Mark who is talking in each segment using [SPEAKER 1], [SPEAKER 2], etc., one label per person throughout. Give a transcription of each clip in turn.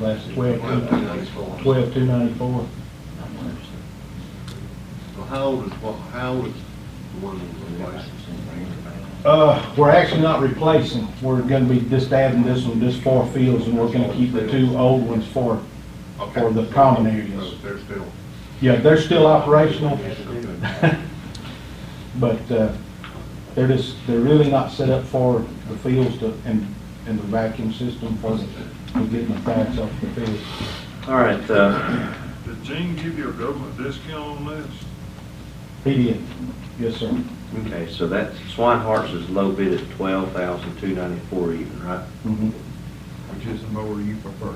[SPEAKER 1] That's twelve,
[SPEAKER 2] Well,
[SPEAKER 1] two-
[SPEAKER 2] that's four.
[SPEAKER 1] twelve, two ninety-four.
[SPEAKER 2] Well, how old is, what, how old is the one that was replaced?
[SPEAKER 1] Uh, we're actually not replacing, we're gonna be just adding this one, just four fields, and we're gonna keep the two old ones for,
[SPEAKER 2] Okay.
[SPEAKER 1] for the common areas.
[SPEAKER 2] So Oh, They're still.
[SPEAKER 1] Yeah, they're still operational, but, uh, they're just, they're really not set up for the fields to, and, and the vacuum system for, for getting the cracks off the field.
[SPEAKER 3] All right, uh,
[SPEAKER 4] Did Gene give you a government discount on this?
[SPEAKER 1] He did, yes, sir.
[SPEAKER 3] okay, so that Swinehart's is low bid at twelve thousand two ninety-four even, right?
[SPEAKER 1] Mhm.
[SPEAKER 2] Which is the mower you prefer?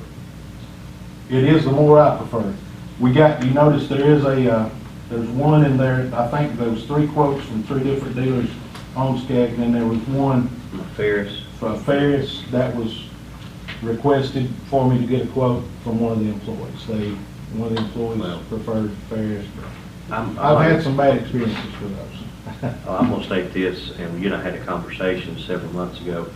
[SPEAKER 1] It is the more I prefer. We got, you notice there is a, uh, there's one in there, I think those three quotes from three different dealers on Skag, and then there was one
[SPEAKER 3] Ferris,
[SPEAKER 1] from Ferris that was requested for me to get a quote from one of the employees. They, one of the
[SPEAKER 3] Well.
[SPEAKER 1] employees preferred Ferris.
[SPEAKER 3] I'm,
[SPEAKER 1] I've
[SPEAKER 3] I'm,
[SPEAKER 1] had some bad experiences with those.
[SPEAKER 3] I'm gonna state this, and you and I had a conversation several months ago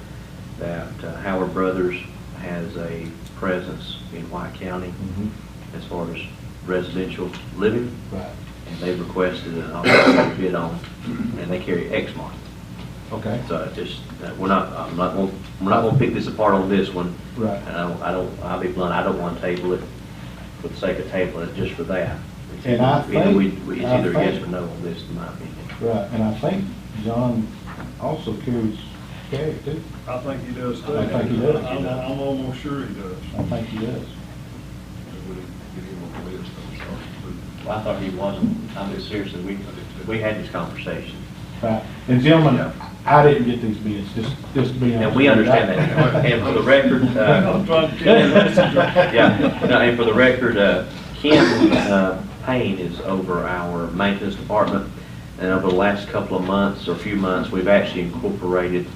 [SPEAKER 3] that uh, Howard Brothers has a presence in White County
[SPEAKER 1] Mm-hmm.
[SPEAKER 3] as far as residential living,
[SPEAKER 1] Right,
[SPEAKER 3] and they've requested an opportunity bid on, and they carry Exmark.
[SPEAKER 1] okay,
[SPEAKER 3] So I just, uh, we're not, I'm not, gonna- we're not gonna pick this apart on this one.
[SPEAKER 1] Right.
[SPEAKER 3] And I don't, I don't, I'll be blunt, I don't wanna table it for the sake of tabling it just for that. It's
[SPEAKER 1] And I
[SPEAKER 3] either- either we-
[SPEAKER 1] think-
[SPEAKER 3] It's
[SPEAKER 1] I
[SPEAKER 3] either a yes
[SPEAKER 1] think-
[SPEAKER 3] or no on this, in my opinion.
[SPEAKER 1] right. And I think John also carries Skag too.
[SPEAKER 4] I think he does too.
[SPEAKER 1] I think he does.
[SPEAKER 4] I'm, I'm almost sure he does.
[SPEAKER 1] I think he does.
[SPEAKER 3] I thought he wasn't, I'm just seriously, we, we had this conversation.
[SPEAKER 1] Right. And gentlemen, I didn't get these bids, just, just to be honest.
[SPEAKER 3] And we
[SPEAKER 1] with you.
[SPEAKER 3] understand that. And for the record, uh,
[SPEAKER 4] I'm trying to tell you, that's a-
[SPEAKER 3] yeah, no, and for the record, uh, Ken uh, Payne is over our maintenance department, and over the last couple of months or few months, we've actually incorporated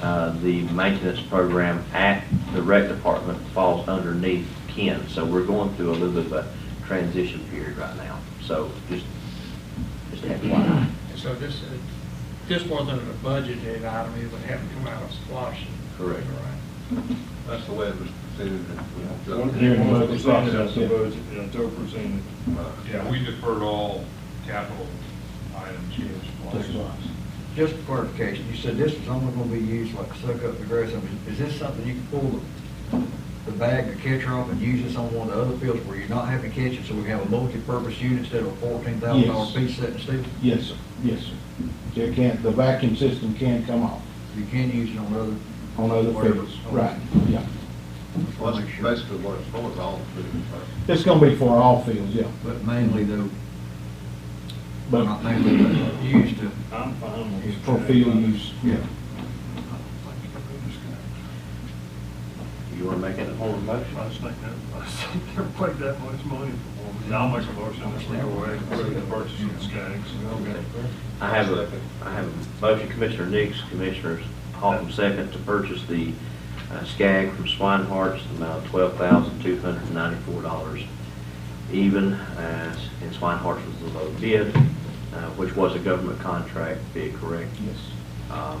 [SPEAKER 3] uh, the maintenance program at the rec department falls underneath Ken, so we're going through a little bit of a transition period right now, so just, just FYI.
[SPEAKER 5] So this, uh, this wasn't a budgeted item, it would have to come out of splosh.
[SPEAKER 3] Correct.
[SPEAKER 2] That's the way it was presented.
[SPEAKER 4] One
[SPEAKER 1] Here in the
[SPEAKER 4] one
[SPEAKER 1] budget
[SPEAKER 4] percent of the
[SPEAKER 1] process, yeah.
[SPEAKER 4] budget, you know, two percent.
[SPEAKER 6] Yeah, we deferred all capital items.
[SPEAKER 1] That's right.
[SPEAKER 7] Just for clarification, you said this is only gonna be used like suck up the grass, I mean, is this something you can pull the, the bag, the catcher off and use this on one of the other fields where you're not having to catch it, so we have a multi-purpose unit instead of a fourteen thousand dollar
[SPEAKER 1] Yes.
[SPEAKER 7] piece set in steel?
[SPEAKER 1] Yes, sir, yes, sir. There can't, the vacuum system can come off
[SPEAKER 7] You can use it on other.
[SPEAKER 1] on other
[SPEAKER 7] whatever.
[SPEAKER 1] fields. Right, yeah.
[SPEAKER 2] Well, that's basically what it's for, is all the food.
[SPEAKER 1] It's gonna be for all fields, yeah,
[SPEAKER 7] But mainly though,
[SPEAKER 1] but
[SPEAKER 7] not mainly, but used to,
[SPEAKER 4] I'm fine with it.
[SPEAKER 1] for field use, yeah.
[SPEAKER 3] You want to make it a formal motion?
[SPEAKER 4] I just think that, I just think they're paid that much money for one. Yeah, I'll make a motion that we go away, with the purchase of the skags.
[SPEAKER 3] I have a, I have a motion, Commissioner Nix, Commissioners Holcomb second, to purchase the uh, Skag from Swinehart's, the amount of twelve thousand two hundred and ninety-four dollars even, as, and Swinehart's was the low bid, uh, which was a government contract bid, correct?
[SPEAKER 1] Yes.
[SPEAKER 3] Um,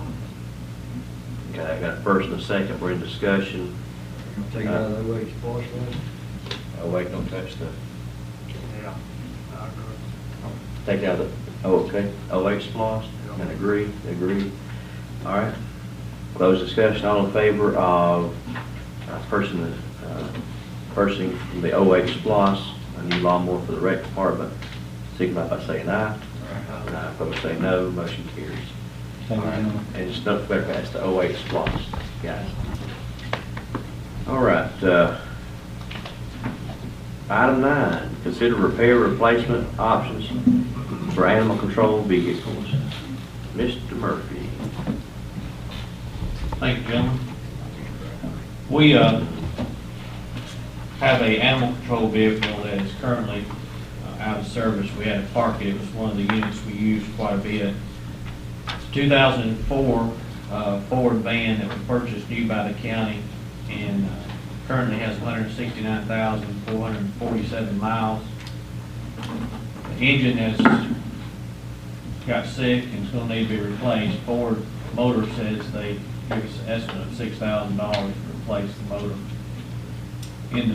[SPEAKER 3] Okay, I got a first and a second, we're in discussion,
[SPEAKER 7] you're gonna take it out of the way it's splosh, right?
[SPEAKER 3] oh wait, don't touch the,
[SPEAKER 4] Yeah, I agree.
[SPEAKER 3] take out the, oh, okay, oh wait, splosh, and agree, agree, all right. Close discussion, all in favor of uh, person, uh, purchasing from the 08 SPOS, a new lawnmower for the rec department, signify by saying aye. Aye, opposed say no, motion carries. All
[SPEAKER 1] Thank you,
[SPEAKER 3] right,
[SPEAKER 1] gentlemen.
[SPEAKER 3] And just don't forget, that's the 08 SPOS, guys. All right, uh, item nine, consider repair replacement options for animal control vehicles. Mr. Murphy.
[SPEAKER 8] Thank you, gentlemen. We uh, have a animal control vehicle that is currently uh, out of service. We had to park it, it was one of the units we used quite a bit. 2004 uh, Ford van that was purchased new by the county and uh, currently has 169,447 miles. The engine has got sick and it's gonna need to be replaced. Ford Motor says they give us an estimate of six thousand dollars to replace the motor in the